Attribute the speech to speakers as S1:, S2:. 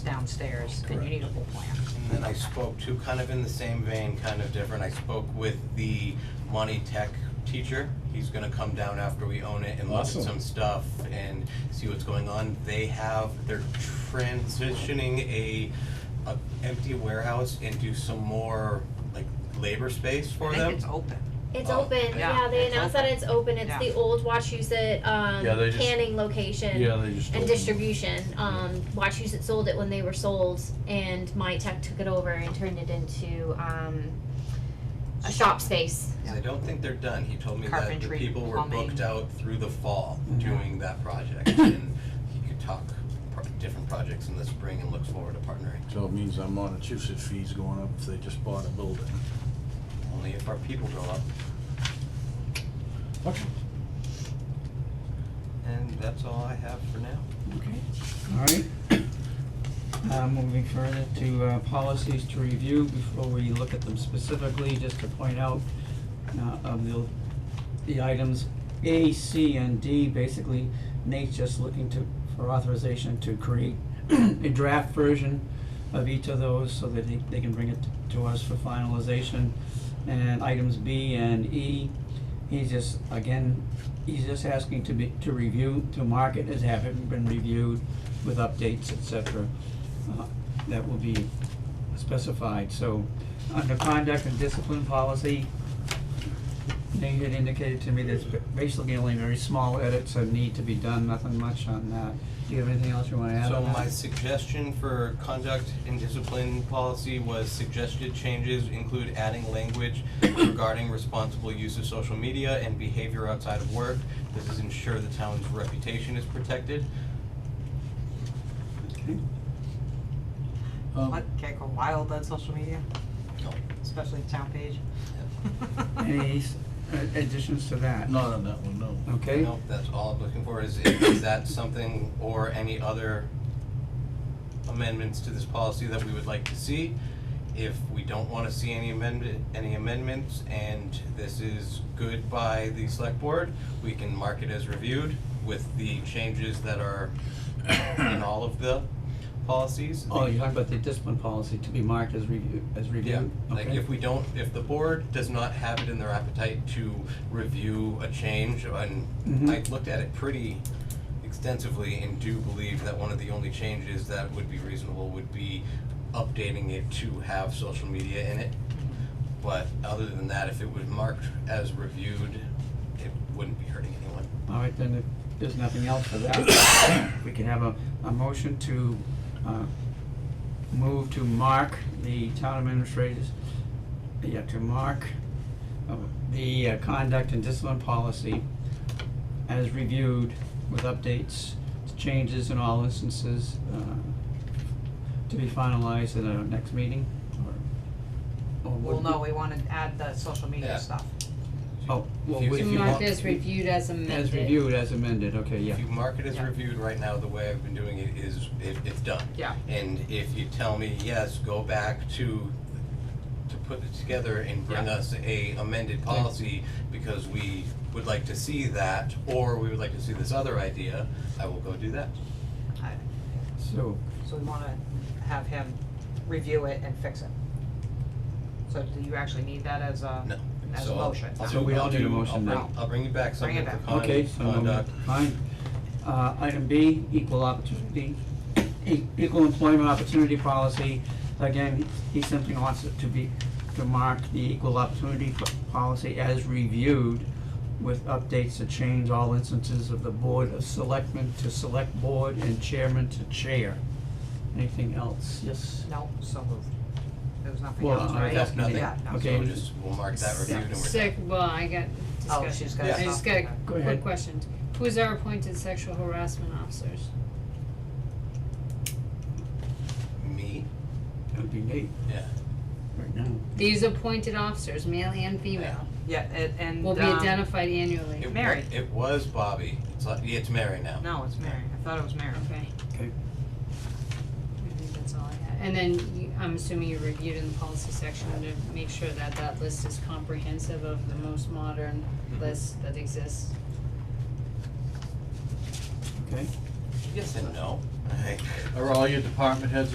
S1: downstairs, then you need a whole plan.
S2: And then I spoke to, kind of in the same vein, kind of different, I spoke with the Monty Tech teacher. He's gonna come down after we own it and look at
S3: Awesome.
S2: some stuff and see what's going on. They have, they're transitioning a, a empty warehouse into some more like labor space for
S1: I
S2: them.
S1: think it's open.
S4: It's
S2: Oh,
S4: open.
S1: yeah,
S4: Yeah, they
S1: it's
S4: announced that it's open. It's
S1: Yeah.
S4: the old Wachusett um,
S3: Yeah, they just-
S4: canning location
S3: Yeah, they just.
S4: and
S3: opened.
S4: distribution. Um, Wachusett sold it when they were sold, and My Tech took it over and turned it into um, a shop space.
S2: I don't think they're done. He told me that the
S1: Carpentry,
S2: people were
S1: plumbing.
S2: booked out through the fall doing that project. And he could talk pro- different projects in the spring and looks forward to partnering.
S3: So it means our Montechusett fee's going up if they just bought a building.
S2: Only if our people grow up.
S3: Okay.
S2: And that's all I have for now.
S5: Okay, all right. Uh, moving further to, uh, policies to review before we look at them specifically, just to point out, uh, of the, the items A, C, and D, basically Nate's just looking to, for authorization to create a draft version of each of those so that they, they can bring it to us for finalization. And items B and E, he's just, again, he's just asking to be, to review, to mark it as having been reviewed with updates, et cetera, uh, that will be specified, so, under conduct and discipline policy, Nate had indicated to me there's basically only very small edits that need to be done, nothing much on that. Do you have anything else you wanna add
S2: So
S5: on that?
S2: my suggestion for conduct and discipline policy was suggested changes include adding language regarding responsible use of social media and behavior outside of work. This is ensure the town's reputation is protected.
S5: Okay.
S2: Um,
S3: Um,
S1: What, can't go wild on social media,
S2: No.
S1: especially the town page.
S5: Any s- a- additions to that?
S3: Not on that one, no.
S5: Okay,
S2: Nope, that's all I'm looking for is, is that something or any other amendments to this policy that we would like to see? If we don't wanna see any amendment, any amendments, and this is good by the select board, we can mark it as reviewed with the changes that are in all of the policies.
S5: oh, you're talking about the discipline policy to be marked as review, as
S2: Yeah,
S5: reviewed?
S2: like
S5: Okay.
S2: if we don't, if the board does not have it in their appetite to review a change, and
S5: Mhm.
S2: I looked at it pretty extensively and do believe that one of the only changes that would be reasonable would be updating it to have social media in it. But other than that, if it was marked as reviewed, it wouldn't be hurting anyone.
S5: All right, then if there's nothing else for that, we can have a, a motion to, uh, move to mark the town administrators, yeah, to mark uh, the uh, conduct and discipline policy as reviewed with updates, changes in all instances, uh, to be finalized at our next meeting, or, or
S1: Well,
S5: would
S1: no, we wanna add the social
S2: Yeah.
S1: media stuff.
S5: Oh, well,
S2: If you-
S5: if
S2: if
S5: you
S2: you
S6: Marked
S2: want-
S5: want,
S6: as reviewed as amended.
S5: as reviewed, as amended, okay, yeah.
S2: If you mark it as
S1: Yeah.
S2: reviewed right now, the way I've been doing it is, it, it's done.
S1: Yeah.
S2: And if you tell me, yes, go back to, to put it together and bring
S1: Yeah.
S2: us a amended policy because we would like to see that, or we would like to see this other idea, I will go do that.
S1: I-
S5: So,
S1: So we wanna have him review it and fix it. So do you actually need that as a,
S2: No.
S1: as a
S2: So I'll-
S1: motion?
S2: I'll
S5: So
S2: do-
S5: we don't
S2: I'll
S5: need a
S2: do- I'll
S5: motion
S2: bring-
S1: now.
S2: I'll bring you back
S1: Bring
S2: something
S1: it
S2: for
S1: back.
S2: con-
S5: Okay, so we'll move-
S2: conduct.
S5: fine. Uh, item B, equal opportunity, e- equal employment opportunity policy. Again, he simply wants it to be, to mark the equal opportunity p- policy as reviewed with updates to change all instances of the board of selectmen to select board and chairman to chair. Anything else? Yes.
S1: No, so moved. There was nothing
S5: Well,
S1: else,
S5: I-
S1: right?
S2: That's nothing.
S1: Yeah, no.
S2: So
S5: Okay.
S2: we'll just, we'll mark that reviewed and we're done.
S6: Sick, well, I got
S1: Oh,
S6: discussion.
S1: she's got
S6: I just got
S1: something.
S6: a
S5: Go ahead.
S6: quick question. Who's our appointed sexual harassment officers?
S2: Me,
S5: That would be Nate
S2: yeah.
S5: right now.
S6: These appointed officers, male and female,
S1: Yeah, and, and,
S6: will be
S1: um,
S6: identified
S2: It
S6: annually.
S2: wa-
S1: Mary.
S2: It was Bobby, it's like, yeah, it's Mary now.
S1: No, it's Mary. I thought it was Mary.
S6: Okay.
S5: Okay.
S6: I think that's all I had. And then you, I'm assuming you reviewed in the policy section to make sure that that list is comprehensive of the most modern
S1: Mm-hmm.
S6: list that exists.
S5: Okay.
S2: Yes and no.
S3: Are all your department heads